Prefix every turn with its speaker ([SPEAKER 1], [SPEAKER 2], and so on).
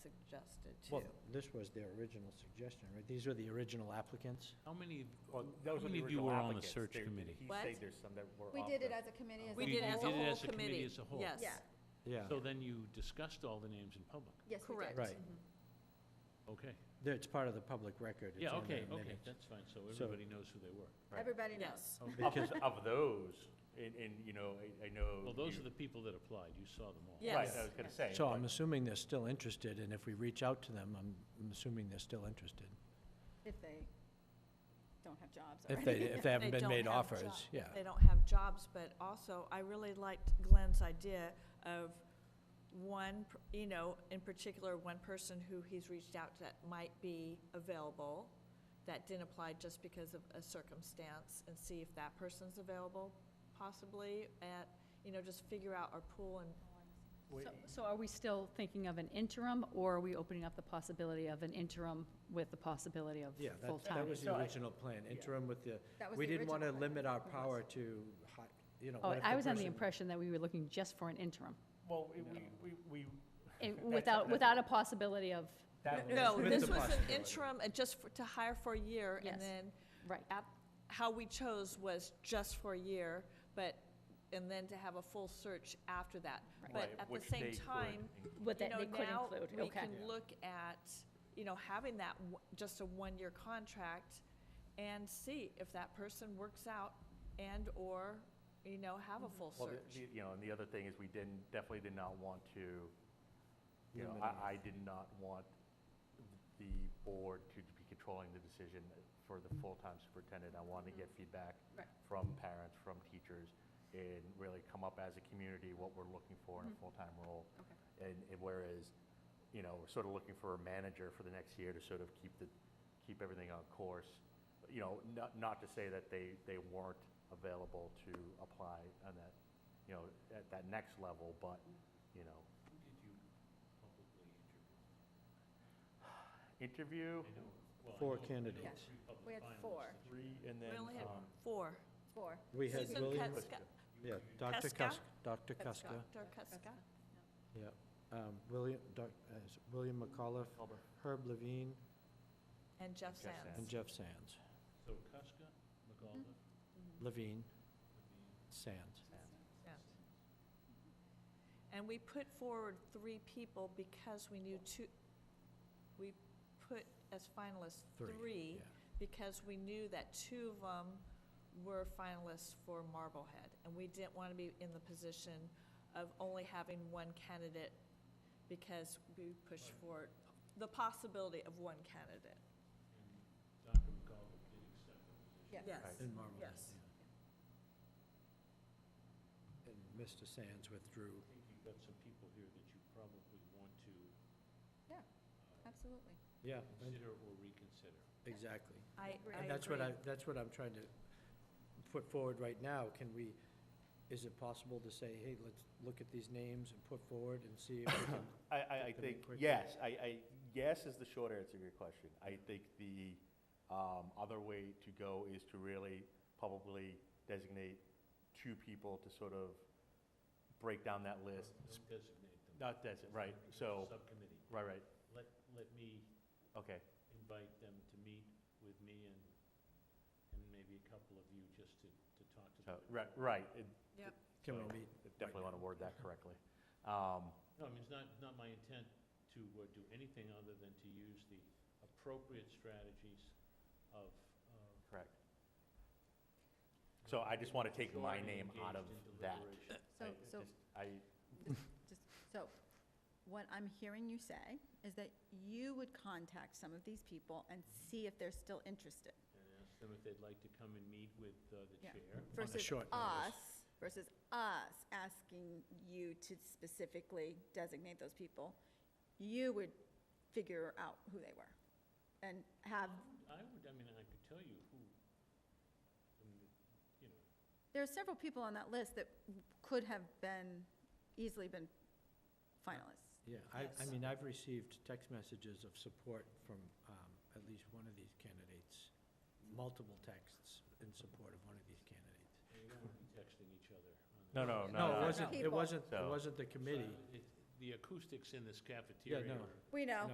[SPEAKER 1] suggested
[SPEAKER 2] Well,
[SPEAKER 1] too.
[SPEAKER 2] this was their original suggestion, right? These were the original applicants?
[SPEAKER 3] How many, of-
[SPEAKER 4] Well,
[SPEAKER 3] how
[SPEAKER 4] those were
[SPEAKER 3] many
[SPEAKER 4] the
[SPEAKER 3] of you
[SPEAKER 4] original
[SPEAKER 3] were on the
[SPEAKER 4] applicants.
[SPEAKER 3] search
[SPEAKER 4] There-
[SPEAKER 3] committee?
[SPEAKER 4] He
[SPEAKER 1] What?
[SPEAKER 4] said there's some that were
[SPEAKER 5] We
[SPEAKER 4] off
[SPEAKER 5] did it
[SPEAKER 4] the-
[SPEAKER 5] as a committee, as
[SPEAKER 1] We
[SPEAKER 5] a
[SPEAKER 3] You-
[SPEAKER 1] did
[SPEAKER 3] you
[SPEAKER 1] as a
[SPEAKER 3] did it
[SPEAKER 1] whole
[SPEAKER 3] as a committee
[SPEAKER 1] committee.
[SPEAKER 3] as a whole.
[SPEAKER 1] Yes.
[SPEAKER 5] Yeah.
[SPEAKER 2] Yeah,
[SPEAKER 3] So then you discussed all the names in public,
[SPEAKER 5] Yes, we
[SPEAKER 1] Correct.
[SPEAKER 5] did. Mhm.
[SPEAKER 2] right.
[SPEAKER 3] okay?
[SPEAKER 2] There- It's part of the public record. It's
[SPEAKER 3] Yeah,
[SPEAKER 2] in
[SPEAKER 3] okay,
[SPEAKER 2] their
[SPEAKER 3] okay,
[SPEAKER 2] minutes.
[SPEAKER 3] that's fine, so
[SPEAKER 2] So-
[SPEAKER 3] everybody knows who they were.
[SPEAKER 4] Right.
[SPEAKER 5] Everybody knows.
[SPEAKER 1] Yes.
[SPEAKER 4] Of th- Of those, and, and, you know, I- I know.
[SPEAKER 3] Well, those
[SPEAKER 4] you-
[SPEAKER 3] are the people that applied, you saw them all.
[SPEAKER 1] Yeah.
[SPEAKER 4] Right,
[SPEAKER 1] Yes.
[SPEAKER 4] I was gonna say.
[SPEAKER 2] So
[SPEAKER 4] but-
[SPEAKER 2] I'm assuming they're still interested, and if we reach out to them, I'm I'm assuming they're still interested.
[SPEAKER 5] If they don't have jobs
[SPEAKER 2] If
[SPEAKER 5] already.
[SPEAKER 2] they, if they haven't been
[SPEAKER 1] don't
[SPEAKER 2] made
[SPEAKER 1] have
[SPEAKER 2] offers,
[SPEAKER 1] jobs.
[SPEAKER 2] yeah.
[SPEAKER 1] They don't have jobs, but also, I really liked Glenn's idea of one, per- you know, in particular, one person who he's reached out to that might be available, that didn't apply just because of a circumstance, and see if that person's available, possibly, at, you know, just figure out our pool and,
[SPEAKER 4] Wait,
[SPEAKER 6] So- So are we still thinking of an interim, or are we opening up the possibility of an interim with the possibility of
[SPEAKER 2] Yeah, that, that
[SPEAKER 6] full-time?
[SPEAKER 2] was the original plan, interim with the,
[SPEAKER 5] That was
[SPEAKER 2] we
[SPEAKER 5] the
[SPEAKER 2] didn't want to
[SPEAKER 5] original plan.
[SPEAKER 2] limit our
[SPEAKER 5] Yes.
[SPEAKER 2] power to, hi- you know,
[SPEAKER 6] Oh,
[SPEAKER 2] what if
[SPEAKER 6] I was under the
[SPEAKER 2] person-
[SPEAKER 6] impression that we were looking just for an interim,
[SPEAKER 4] Well, we, we, we.
[SPEAKER 6] eh,
[SPEAKER 4] that's-
[SPEAKER 6] without,
[SPEAKER 4] that's-
[SPEAKER 6] without a possibility of,
[SPEAKER 4] that was-
[SPEAKER 1] no,
[SPEAKER 2] With
[SPEAKER 1] this
[SPEAKER 2] the
[SPEAKER 1] was an
[SPEAKER 2] possibility.
[SPEAKER 1] interim, uh, just for- to hire for a year,
[SPEAKER 6] Yes.
[SPEAKER 1] and then
[SPEAKER 6] right.
[SPEAKER 1] app- how we chose was just for a year, but, and then to have a full search after that.
[SPEAKER 6] Right.
[SPEAKER 1] But
[SPEAKER 4] Right,
[SPEAKER 1] at the
[SPEAKER 4] which
[SPEAKER 1] same
[SPEAKER 4] they could
[SPEAKER 1] time,
[SPEAKER 4] include.
[SPEAKER 6] What
[SPEAKER 1] you
[SPEAKER 6] that
[SPEAKER 1] know,
[SPEAKER 6] they could
[SPEAKER 1] now
[SPEAKER 6] include,
[SPEAKER 1] we
[SPEAKER 6] okay.
[SPEAKER 1] can look at, you know, having that, w- just a one-year contract and see if that person works out and/or, you know, have a full
[SPEAKER 4] Well, the-
[SPEAKER 1] search.
[SPEAKER 4] the- You know, and the other thing is we didn't, definitely did not want to, you know,
[SPEAKER 2] Limit it.
[SPEAKER 4] I, I did not want the board to be controlling the decision for the full-time superintendent. I wanted to get feedback
[SPEAKER 6] Mm-hmm. Right.
[SPEAKER 4] from parents, from teachers, and really come up as a community what we're looking for in a full-time role.
[SPEAKER 6] Mm-hmm. Okay.
[SPEAKER 4] And, and whereas, you know, we're sort of looking for a manager for the next year to sort of keep the, keep everything on course. You know, not, not to say that they, they weren't available to apply on that, you know, at that next level, but, you know,
[SPEAKER 3] Who did you publicly interview?
[SPEAKER 4] interview,
[SPEAKER 3] I know- well, I
[SPEAKER 2] Four
[SPEAKER 3] know- I know
[SPEAKER 2] candidates.
[SPEAKER 3] three public
[SPEAKER 5] We had
[SPEAKER 3] finalists
[SPEAKER 5] four.
[SPEAKER 3] that you-
[SPEAKER 4] three, and then.
[SPEAKER 1] We only had
[SPEAKER 4] um,
[SPEAKER 1] four.
[SPEAKER 5] Four.
[SPEAKER 2] We had
[SPEAKER 1] Susan
[SPEAKER 2] William,
[SPEAKER 1] Kuska-
[SPEAKER 2] yeah, Dr.
[SPEAKER 1] Kuska?
[SPEAKER 2] Kuska, Dr. Kuska,
[SPEAKER 1] Dr. Kuska.
[SPEAKER 2] yeah. Um, William, Doc- uh, s- William McAuliffe,
[SPEAKER 4] Culver.
[SPEAKER 2] Herb Levine,
[SPEAKER 1] and Jeff
[SPEAKER 4] Jeff
[SPEAKER 1] Sands.
[SPEAKER 2] and Jeff Sands.
[SPEAKER 3] So Cuska, McAuliffe,
[SPEAKER 2] Levine,
[SPEAKER 3] Levine,
[SPEAKER 2] Sands.
[SPEAKER 1] Yeah. And we put forward three people because we knew two, we put as finalists three
[SPEAKER 2] yeah.
[SPEAKER 1] because we knew that two of them were finalists for Marblehead. And we didn't want to be in the position of only having one candidate because we pushed for the possibility of one candidate.
[SPEAKER 3] and Dr. McAuliffe did accept the position.
[SPEAKER 5] Yes.
[SPEAKER 1] Yes.
[SPEAKER 2] And Marvel.
[SPEAKER 1] Yes.
[SPEAKER 2] yeah. And Mr. Sands withdrew.
[SPEAKER 3] I think you've got some people here that you probably want to
[SPEAKER 5] Yeah,
[SPEAKER 3] uh,
[SPEAKER 5] absolutely.
[SPEAKER 2] Yeah,
[SPEAKER 3] consider or reconsider.
[SPEAKER 2] exactly.
[SPEAKER 1] I, I
[SPEAKER 2] And that's what
[SPEAKER 1] agree.
[SPEAKER 2] I, that's what I'm trying to put forward right now. Can we, is it possible to say, hey, let's look at these names and put forward and see if we can
[SPEAKER 4] I, I, I
[SPEAKER 2] Get them in
[SPEAKER 4] think,
[SPEAKER 2] quickly.
[SPEAKER 4] yes, I, I, yes is the short answer to your question. I think the, um, other way to go is to really probably designate two people to sort of break down that list.
[SPEAKER 3] Don't designate them.
[SPEAKER 4] Not designate, right, so,
[SPEAKER 3] Subcommittee.
[SPEAKER 4] right, right,
[SPEAKER 3] Let, let me
[SPEAKER 4] okay,
[SPEAKER 3] invite them to meet with me and, and maybe a couple of you just to, to talk to them.
[SPEAKER 4] so, Uh, right, right. it-
[SPEAKER 1] Yep.
[SPEAKER 2] Can we
[SPEAKER 4] so
[SPEAKER 2] meet
[SPEAKER 4] Definitely
[SPEAKER 2] right
[SPEAKER 4] want to word that correctly. Um,
[SPEAKER 3] No, I mean, it's not, not my intent to uh, do anything other than to use the appropriate strategies of. uh, of-
[SPEAKER 4] correct. So I just want to take
[SPEAKER 3] Sure,
[SPEAKER 4] my name out of
[SPEAKER 3] engaged in
[SPEAKER 4] that.
[SPEAKER 3] deliberation.
[SPEAKER 4] I-
[SPEAKER 5] So, so,
[SPEAKER 4] just- I,
[SPEAKER 5] just, so, what I'm hearing you say is that you would contact some of these people and see if they're still interested
[SPEAKER 3] And ask them if they'd like to come and meet with uh, the
[SPEAKER 5] Yeah.
[SPEAKER 3] chair.
[SPEAKER 2] a
[SPEAKER 5] versus
[SPEAKER 2] short notice.
[SPEAKER 5] us, versus us asking you to specifically designate those people. You would figure out who they were and have,
[SPEAKER 3] I would, I mean, I could tell you who, I mean, you know,
[SPEAKER 5] there are several people on that list that could have been, easily been finalists.
[SPEAKER 2] Yeah, I, I
[SPEAKER 1] Yes.
[SPEAKER 2] mean, I've received text messages of support from um, at least one of these candidates, multiple texts in support of one of these candidates.
[SPEAKER 3] you don't want to be texting each other. on
[SPEAKER 4] No,
[SPEAKER 3] this.
[SPEAKER 4] no,
[SPEAKER 2] No, it
[SPEAKER 5] no.
[SPEAKER 2] wasn't, it
[SPEAKER 5] People.
[SPEAKER 2] wasn't, it
[SPEAKER 4] So-
[SPEAKER 2] wasn't the
[SPEAKER 3] So I
[SPEAKER 2] committee.
[SPEAKER 3] would- it- the acoustics in this
[SPEAKER 2] no.
[SPEAKER 3] cafeteria are
[SPEAKER 5] We know.